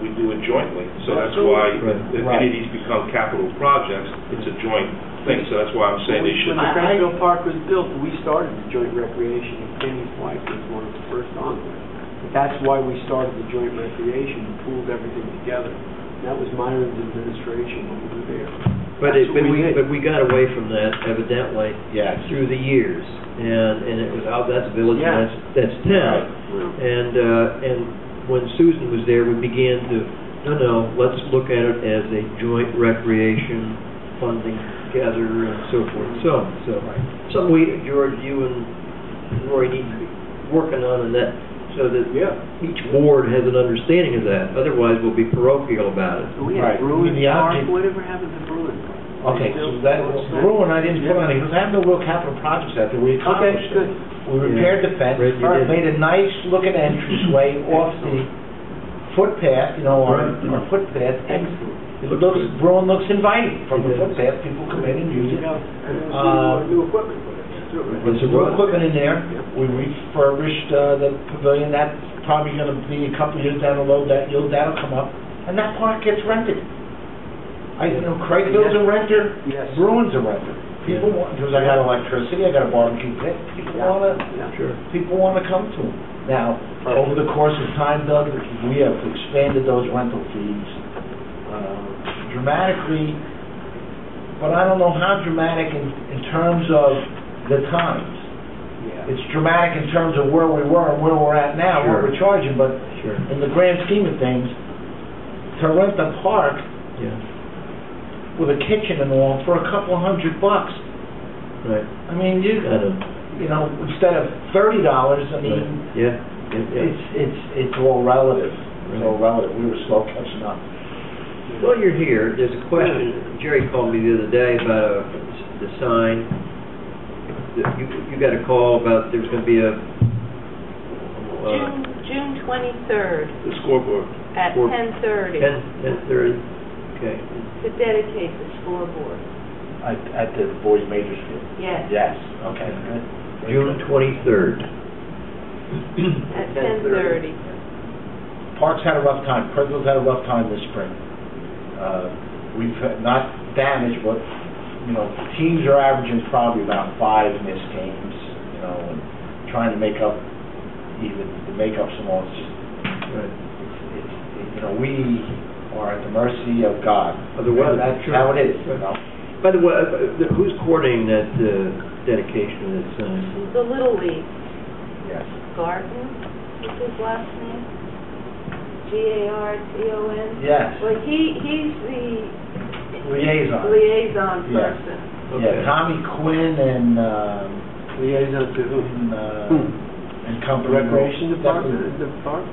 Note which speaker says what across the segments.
Speaker 1: do it jointly, so that's why, if if any of these become capital projects, it's a joint thing, so that's why I'm saying they should.
Speaker 2: When the Cranfield Park was built, we started the joint recreation, and Kenny White was one of the first on it. That's why we started the joint recreation, and pooled everything together. That was Myron's administration when we were there.
Speaker 3: But it,
Speaker 2: That's
Speaker 3: but
Speaker 2: what
Speaker 3: we,
Speaker 2: we did.
Speaker 3: but we got away from that evidently
Speaker 4: Yes.
Speaker 3: through the years, and, and it was, oh, that's village,
Speaker 2: Yeah.
Speaker 3: and that's, that's town. And, uh, and when Susan was there, we began to, no, no, let's look at it as a joint recreation funding together and so forth and so on, so. Something we, George, you and Roy need to be working on and that, so that
Speaker 2: Yeah.
Speaker 3: each board has an understanding of that, otherwise we'll be parochial about it.
Speaker 2: And we
Speaker 4: Right.
Speaker 2: had Bruin
Speaker 4: The
Speaker 2: Park,
Speaker 4: object-
Speaker 2: whatever happened to Bruin?
Speaker 4: Okay, so that, Bruin, I didn't put on it, because I have no real capital projects out there, we
Speaker 2: Okay,
Speaker 4: accomplished
Speaker 2: good.
Speaker 4: it. We repaired the fence,
Speaker 3: Right, you did.
Speaker 4: made a nice looking entranceway off the footpath, you know, our,
Speaker 3: Right.
Speaker 4: our footpath, and
Speaker 2: Excellent.
Speaker 4: it looks, Bruin looks inviting from the
Speaker 3: It does.
Speaker 4: footpath, people come in and use it.
Speaker 2: Yeah, and it was
Speaker 4: Uh,
Speaker 2: new new equipment for it. That's true, right?
Speaker 3: But
Speaker 4: There's some new equipment in there,
Speaker 2: Yep.
Speaker 4: we refurbished, uh, the pavilion, that's probably gonna be a couple years down the road, that, you'll, that'll come up, and that park gets rented. I, you know, Craigville's a renter,
Speaker 2: Yes.
Speaker 4: Bruins are rented. People
Speaker 3: Yeah.
Speaker 4: want, because I got electricity, I got a barbecue pit, people
Speaker 2: Yeah,
Speaker 4: wanna,
Speaker 2: yeah.
Speaker 3: Sure.
Speaker 4: people wanna come to them. Now, over the course of time, Doug, we have expanded those rental fees uh, dramatically, but I don't know how dramatic in, in terms of the times.
Speaker 2: Yeah.
Speaker 4: It's dramatic in terms of where we were and where we're at now,
Speaker 3: Sure.
Speaker 4: what we're charging, but
Speaker 3: Sure,
Speaker 4: in the grand scheme of things, to rent a park
Speaker 3: yeah,
Speaker 4: with a kitchen and all for a couple hundred bucks,
Speaker 3: right,
Speaker 4: I mean, you,
Speaker 3: I know.
Speaker 4: you know, instead of thirty dollars, I
Speaker 3: Right.
Speaker 4: mean,
Speaker 3: Yeah, yeah, yeah.
Speaker 4: it's, it's, it's all relative. It's all relative. We were slow catching up.
Speaker 3: While you're here, there's a question, Jerry called me the other day about uh, the sign. That You, you got a call about there's gonna be a, uh,
Speaker 5: June, June twenty-third
Speaker 1: The scoreboard.
Speaker 5: at
Speaker 3: Four-
Speaker 5: ten-thirty
Speaker 3: ten, ten thirty, okay.
Speaker 5: to dedicate the scoreboard.
Speaker 4: At, at the boys majors field?
Speaker 5: Yes,
Speaker 4: Yes, okay, good.
Speaker 3: June twenty-third.
Speaker 5: at ten-thirty.
Speaker 4: Parks had a rough time. Pergo's had a rough time this spring. Uh, we've had- not damaged, but, you know, teams are averaging probably about five missed games, you know, and trying to make up even, to make up some lost,
Speaker 3: Right.
Speaker 4: it's, it's, you know, we are at the mercy of God.
Speaker 3: Of the weather,
Speaker 4: That's
Speaker 3: sure.
Speaker 4: how it is, you know?
Speaker 3: By the way, uh, the- who's coordinating that, uh, dedication uh, of that sign?
Speaker 5: The Little League
Speaker 4: Yes.
Speaker 5: Garden, what's his last name? G-A-R-T-O-N?
Speaker 4: Yes.
Speaker 5: Well, he, he's the
Speaker 4: Liaison.
Speaker 5: liaison
Speaker 4: Yeah.
Speaker 5: person.
Speaker 3: Okay.
Speaker 4: Yeah, Tommy Quinn and, um,
Speaker 2: Liaison to who?
Speaker 4: and, uh,
Speaker 2: Hmm.
Speaker 4: and company.
Speaker 2: Recreation
Speaker 4: Definitely.
Speaker 2: Department, the park?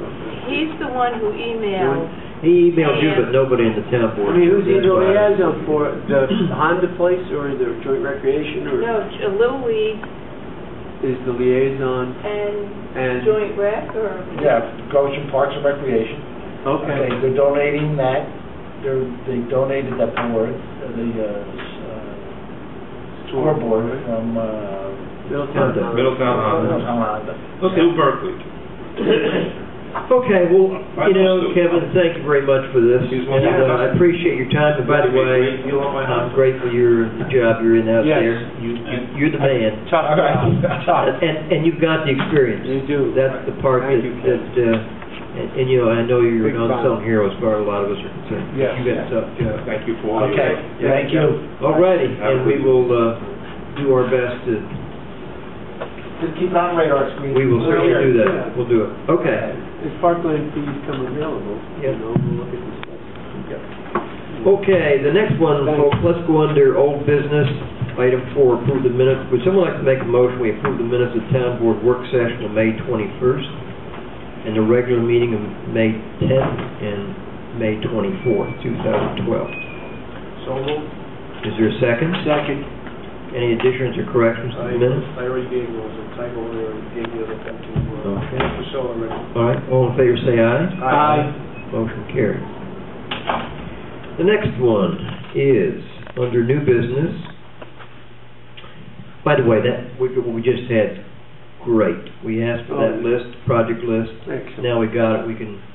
Speaker 5: He's the one who emailed,
Speaker 3: He emailed you, but nobody in the town
Speaker 2: I
Speaker 3: board.
Speaker 2: mean, who's he the
Speaker 3: That's why-
Speaker 2: liaison for, the Honda place or the joint recreation or
Speaker 5: no, J- a Little League
Speaker 2: is the liaison
Speaker 5: and
Speaker 2: and?
Speaker 5: Joint Rec or?
Speaker 4: Yeah, Goshen Parks and Recreation.
Speaker 2: Okay.
Speaker 4: They're donating that, they're, they donated that board, uh, the, uh, s- uh, scoreboard from, uh,
Speaker 2: Middletown
Speaker 3: Honda.
Speaker 2: Honda.
Speaker 1: Middletown
Speaker 2: Oh,
Speaker 1: Honda.
Speaker 4: Honda.
Speaker 1: New Berkeley.
Speaker 3: Okay, well, you know, Kevin, thank you very much for this.
Speaker 1: He's
Speaker 3: And
Speaker 1: welcome.
Speaker 3: uh, I appreciate your time, and by the way,
Speaker 1: You want my
Speaker 3: I'm
Speaker 1: number?
Speaker 3: grateful you're, the job you're in out
Speaker 2: Yes.
Speaker 3: there. You, you- you're the man.
Speaker 4: Tough, tough.
Speaker 3: And, and you've got the experience.
Speaker 2: You do.
Speaker 3: That's the part that,
Speaker 2: Thank you, Ken.
Speaker 3: that, uh, and, and, you know, I know you're
Speaker 2: Big
Speaker 3: an
Speaker 2: fan.
Speaker 3: unsung hero as far as a lot of us are concerned.
Speaker 2: Yes.
Speaker 3: You got stuff,
Speaker 1: Yeah, Thank you for all your
Speaker 4: Okay,
Speaker 1: work.
Speaker 4: thank you.
Speaker 3: All righty,
Speaker 1: Have a
Speaker 3: and we
Speaker 1: good-
Speaker 3: will, uh, do our best to,
Speaker 4: Just keep it on radar screen.
Speaker 3: we will certainly do
Speaker 2: Yeah.
Speaker 3: that. We'll do it. Okay.
Speaker 2: If parkland fees come available, you
Speaker 3: Yeah.
Speaker 2: know, we'll look at this stuff.
Speaker 3: Okay, the next one, folks, let's go under old business, item four, approve the minutes. Would someone like to make a motion, we approve the minutes of town board work session of May 21st, and the regular meeting of May 10th and May 24th, 2012?
Speaker 2: So moved.
Speaker 3: Is there a second?
Speaker 2: Second.
Speaker 3: Any additions or corrections to the minutes?
Speaker 2: I already gave those, the title, I already gave the other thing to,
Speaker 3: Okay.
Speaker 2: Priscilla already.
Speaker 3: All right, all in favor, say aye.
Speaker 2: Aye.
Speaker 3: Motion carries. The next one is under new business. By the way, that, we, we just had, great. We asked for that
Speaker 2: Oh.
Speaker 3: list, project list.
Speaker 2: Excellent.
Speaker 3: Now we got it, we can